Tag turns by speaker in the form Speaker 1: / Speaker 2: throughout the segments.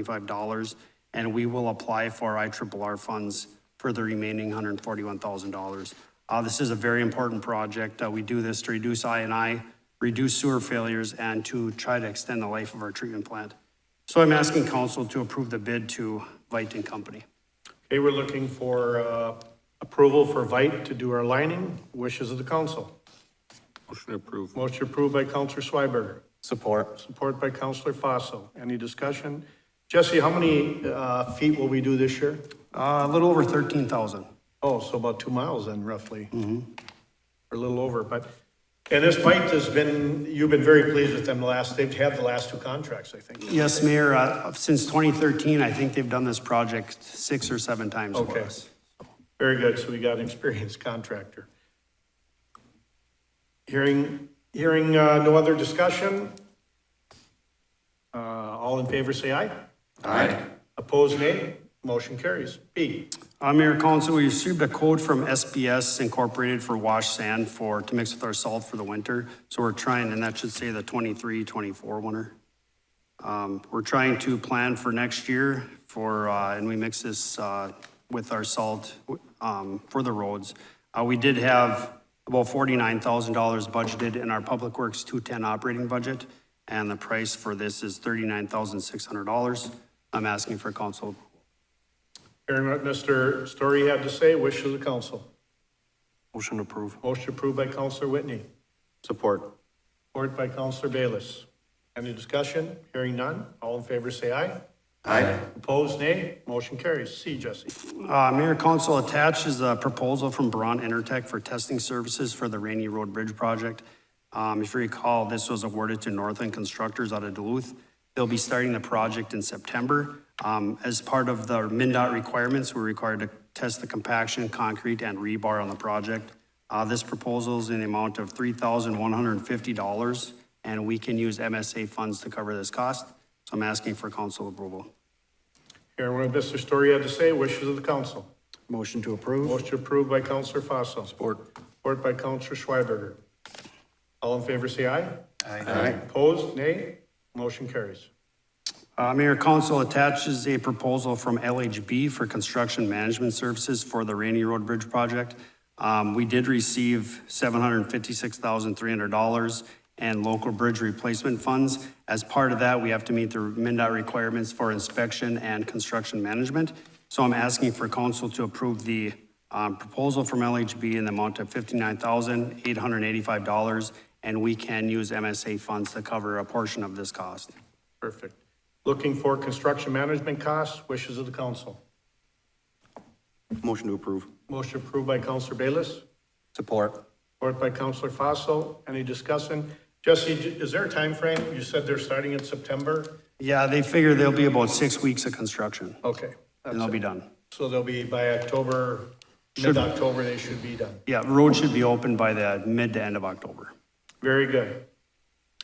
Speaker 1: $125, and we will apply for IRRR funds for the remaining $141,000. Uh, This is a very important project. Uh, We do this to reduce INI, reduce sewer failures, and to try to extend the life of our treatment plant. So I'm asking council to approve the bid to Veit and Company.
Speaker 2: Okay, we're looking for uh, approval for Vite to do our lining. Wishes of the council.
Speaker 3: Motion approved.
Speaker 2: Motion approved by Counselor Schweberger,
Speaker 4: Support.
Speaker 2: support by Counselor Fossil. Any discussion? Jesse, how many uh, feet will we do this year?
Speaker 1: Uh, A little over 13,000.
Speaker 2: Oh, so about two miles then roughly. Or a little over, but, and this Vite has been, you've been very pleased with them the last, they've had the last two contracts, I think.
Speaker 1: Yes, Mayor, uh, since 2013, I think they've done this project six or seven times for
Speaker 2: Okay.
Speaker 1: us.
Speaker 2: Very good, so we got an experienced contractor. Hearing, hearing uh, no other discussion? Uh, All in favor, say aye. Aye. Opposed, nay. Motion carries. B,
Speaker 1: Uh, Mayor Council, we received a quote from SBS Incorporated for wash sand for, to mix with our salt for the winter. So we're trying, and that should say the 23, 24 winter. Um, We're trying to plan for next year for, uh, and we mix this uh, with our salt um, for the roads. Uh, We did have about $49,000 budgeted in our Public Works 210 operating budget, and the price for this is $39,600. I'm asking for council
Speaker 2: hearing what Mr. Story had to say, wish of the council.
Speaker 4: Motion approved.
Speaker 2: Motion approved by Counselor Whitney,
Speaker 4: Support.
Speaker 2: support by Counselor Bayless. Any discussion? Hearing none. All in favor, say aye.
Speaker 4: Aye.
Speaker 2: Opposed, nay. Motion carries. C, Jesse.
Speaker 1: Uh, Mayor Council attached is a proposal from Braun Intertek for testing services for the Rainy Road Bridge project. Um, if you recall, this was awarded to Northland Constructors out of Duluth. They'll be starting the project in September. Um, as part of the MinDOT requirements, we're required to test the compaction, concrete, and rebar on the project. Uh, this proposal is in the amount of three thousand one hundred and fifty dollars, and we can use MSA funds to cover this cost. So I'm asking for council approval.
Speaker 2: Hearing what Mr. Story had to say, wishes of the council.
Speaker 4: Motion to approve.
Speaker 2: Motion approved by Counselor Fossil.
Speaker 4: Support.
Speaker 2: Support by Counselor Schweberger. All in favor, say aye.
Speaker 4: Aye.
Speaker 2: Opposed, nay. Motion carries.
Speaker 1: Uh, Mayor, council attaches a proposal from LHB for construction management services for the Rainy Road Bridge project. Um, we did receive seven hundred and fifty-six thousand, three hundred dollars and local bridge replacement funds. As part of that, we have to meet the MinDOT requirements for inspection and construction management. So I'm asking for council to approve the, um, proposal from LHB in the amount of fifty-nine thousand, eight hundred and eighty-five dollars, and we can use MSA funds to cover a portion of this cost.
Speaker 2: Perfect. Looking for construction management costs, wishes of the council.
Speaker 4: Motion to approve.
Speaker 2: Motion approved by Counselor Bayless,
Speaker 4: Support.
Speaker 2: support by Counselor Fossil. Any discussion? Jesse, is there a time frame? You said they're starting in September?
Speaker 1: Yeah, they figure there'll be about six weeks of construction,
Speaker 2: Okay.
Speaker 1: and they'll be done.
Speaker 2: So they'll be by October, mid-October, they should be done.
Speaker 1: Yeah, road should be open by the mid to end of October.
Speaker 2: Very good.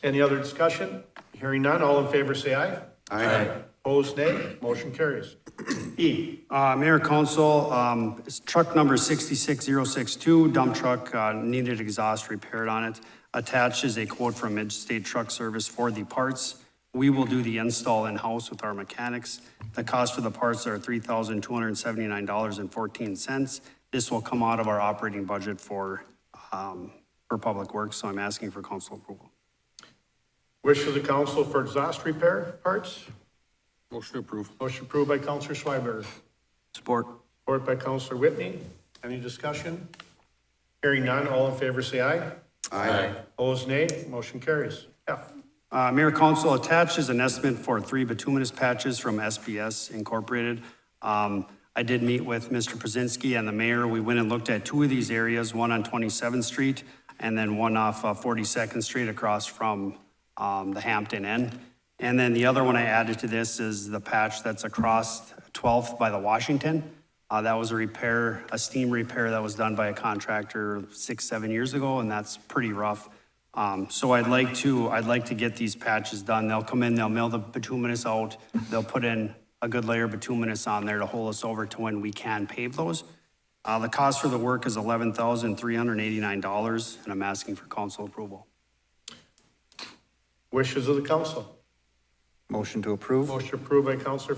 Speaker 2: Any other discussion? Hearing none, all in favor say aye. Aye. Opposed, nay. Motion carries. E,
Speaker 1: Uh, Mayor Council, um, it's truck number 66062, dump truck, uh, needed exhaust repaired on it. Attached is a quote from Midstate Truck Service for the parts. We will do the install in-house with our mechanics. The cost of the parts are $3,279.14. This will come out of our operating budget for, um, for Public Works, so I'm asking for council approval.
Speaker 2: wish of the council for exhaust repair parts.
Speaker 3: Motion approved.
Speaker 2: Motion approved by Counselor Schweberger,
Speaker 4: Support.
Speaker 2: support by Counselor Whitney. Any discussion? Hearing none, all in favor say aye.
Speaker 4: Aye.
Speaker 2: Opposed, nay. Motion carries. F,
Speaker 1: Uh, Mayor Council attached is an estimate for three bituminous patches from SBS Incorporated. Um, I did meet with Mr. Przezinski and the mayor. We went and looked at two of these areas, one on 27th Street and then one off uh, 42nd Street across from um, the Hampton Inn. And then the other one I added to this is the patch that's across 12th by the Washington. Uh, That was a repair, a steam repair that was done by a contractor six, seven years ago, and that's pretty rough. Um, So I'd like to, I'd like to get these patches done. They'll come in, they'll mill the bituminous out, they'll put in a good layer of bituminous on there to hold us over to when we can pave those. Uh, The cost for the work is $11,389, and I'm asking for council approval.
Speaker 2: wishes of the council.
Speaker 4: Motion to approve?
Speaker 2: Motion approved by Counselor